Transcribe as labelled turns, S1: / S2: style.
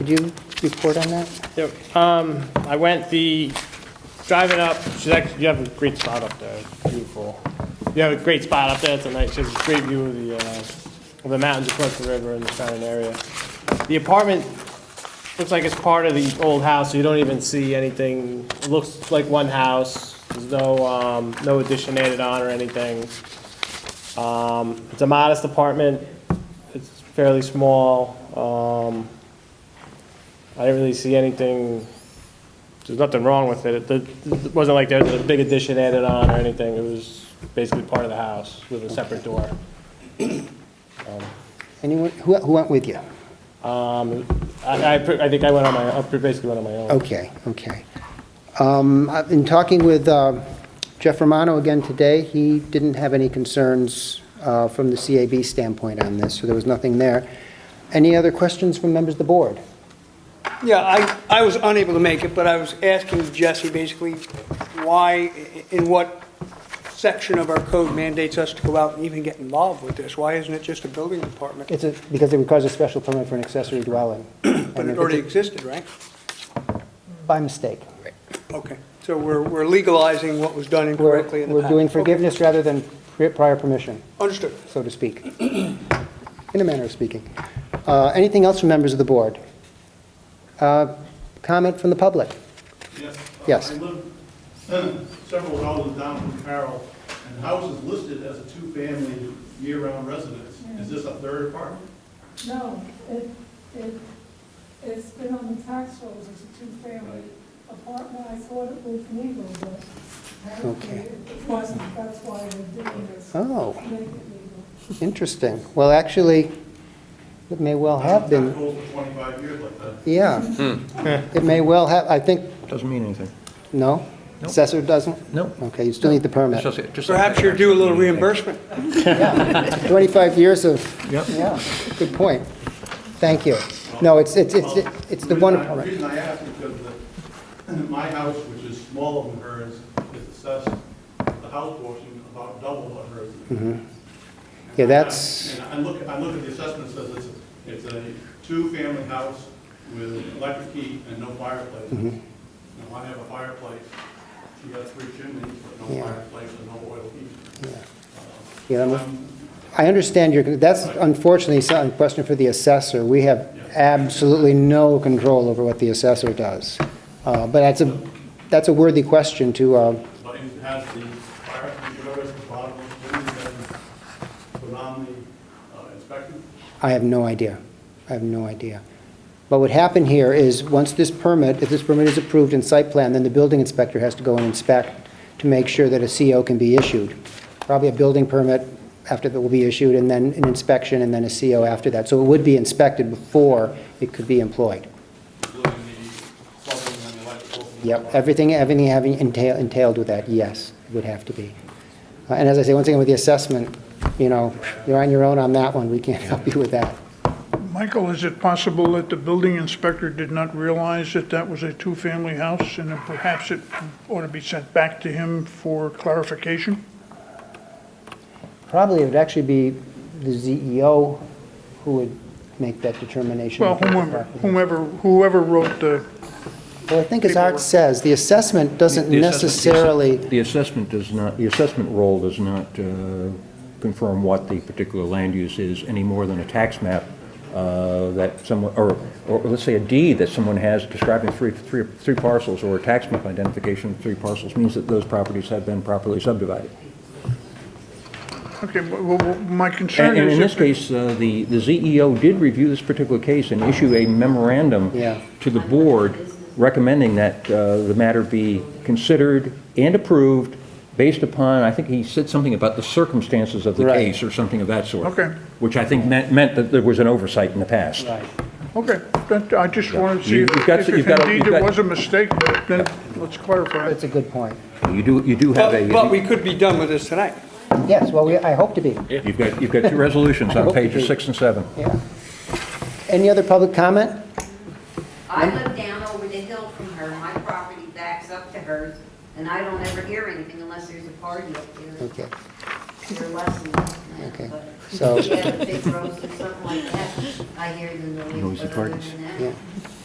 S1: Could you report on that?
S2: Yep, Um, I went the, driving up, she's actually, you have a great spot up there, it's beautiful. You have a great spot up there tonight, she has a great view of the, uh, of the mountains across the river and the surrounding area. The apartment looks like it's part of the old house, so you don't even see anything, it looks like one house. There's no, um, no addition added on or anything. Um, it's a modest apartment, it's fairly small, um, I didn't really see anything, there's nothing wrong with it. It it wasn't like there was a big addition added on or anything. It was basically part of the house with a separate door.
S1: Anyone, who who went with you?
S2: Um, I, I pre- I think I went on my, I basically went on my own.
S1: Okay, okay. Um, I've been talking with uh, Jeff Romano again today. He didn't have any concerns uh, from the CAB standpoint on this, so there was nothing there. Any other questions from members of the board?
S3: Yeah, I, I was unable to make it, but I was asking Jesse basically why, in what section of our code mandates us to go out and even get involved with this? Why isn't it just a building department?
S1: It's a- because it requires a special permit for an accessory dwelling.
S3: But it already existed, right?
S1: By mistake.
S3: Okay, so we're, we're legalizing what was done
S1: We're
S3: incorrectly in the
S1: we're
S3: past.
S1: doing
S3: Okay,
S1: forgiveness rather than pri- prior permission.
S3: Understood.
S1: so to speak, in a manner of speaking. Uh, Anything else from members of the board? Uh, Comment from the public?
S4: Yes. uh,
S1: Yes.
S4: I live several houses down from Carroll, and the house is listed as a two-family year-round residence. Is this a third apartment?
S5: No, it, it, it's been on the tax rolls as a two-family apartment, I thought it was legal, but apparently
S1: Okay.
S5: it wasn't, that's why they're doing this,
S1: Oh,
S5: make it legal.
S1: interesting. Well, actually, it may well have
S4: It's
S1: been,
S4: been sold for 25 years like that.
S1: yeah. It may well have, I think,
S6: Doesn't mean anything.
S1: no? Assessor doesn't?
S6: No.
S1: Okay, you still need the permit.
S3: Perhaps you're due a little reimbursement.
S1: 25 years of,
S6: Yep.
S1: yeah, good point. Thank you. No, it's, it's, it's it's the one
S4: reason I-
S1: apartment.
S4: reason I ask is because the- my house, which is smaller than hers, is assessed, the house portion about double what hers is.
S1: Mm-hmm. Yeah, that's,
S4: And I look, I look at the assessment, it says it's, it's a two-family house with electric heat and no fireplace.
S1: Mm-hmm.
S4: Now, I have a fireplace, she got three chimneys, but no
S1: Yeah.
S4: fireplace and no oil heat.
S1: yeah, I'm-
S4: Um,
S1: I understand your, that's unfortunately some- a question for the assessor. We have absolutely no control over what the assessor does. Uh, But that's a, that's a worthy question to, uh,
S4: But it has the fire, whatever is the bottom of the chimney, that is phenomenally uh, inspected.
S1: I have no idea. I have no idea. But what happened here is, once this permit, if this permit is approved in site plan, then the building inspector has to go and inspect to make sure that a CO can be issued. Probably a building permit after that will be issued, and then an inspection, and then a CO after that. So it would be inspected before it could be employed.
S4: including the plumbing and the electrical.
S1: Yep, everything, everything having entail- entailed with that, yes, it would have to be. Uh, And as I say, once again, with the assessment, you know, you're on your own on that one, we can't help you with that.
S7: Michael, is it possible that the building inspector did not realize that that was a two-family house, and then perhaps it ought to be sent back to him for clarification?
S1: Probably it would actually be the ZEO who would make that determination.
S7: Well, whomever, whomever, whoever wrote the,
S1: Well, I think as Art says, the assessment doesn't
S6: The assessment- the asse-
S1: necessarily,
S6: The assessment does not, the assessment role does not uh, confirm what the particular land use is any more than a tax map uh, that someone, or, or let's say a deed that someone has describing three, three, three parcels, or a tax map identification of three parcels, means that those properties have been properly subdivided.
S7: okay, well, well, my concern
S6: And and
S7: is...
S6: in
S7: that-
S6: this case, uh, the, the ZEO did review this particular case and issue a memorandum
S1: Yeah.
S6: to the board recommending that uh, the matter be considered and approved based upon, I think he said something about the circumstances of the
S1: Right.
S6: case or something of that sort.
S7: Okay.
S6: Which I think meant, meant that there was an oversight in the past.
S1: right,
S7: Okay, that- I just wanted to see
S6: You-
S7: if
S6: you've got-
S7: if
S6: you've got-
S7: indeed
S6: you've
S7: there
S6: got-
S7: was a mistake, then let's clarify. it.
S1: that's a good point.
S6: You do, you do have
S3: But, but
S6: a,
S3: we could be done with this tonight.
S1: Yes, well, we- I hope to be,
S6: you've got, you've got two resolutions on pages six and seven.
S1: yeah. Any other public comment?
S8: I live down over the hill from her, my property backs up to hers, and I don't ever hear anything unless there's a party up there.
S1: Okay.
S8: their lesson.
S1: Okay,
S8: But
S1: so-
S8: if you have a big rose or something like that, I hear the noise,
S6: Noisy
S8: but other
S6: parties.
S8: than that.
S1: Yeah.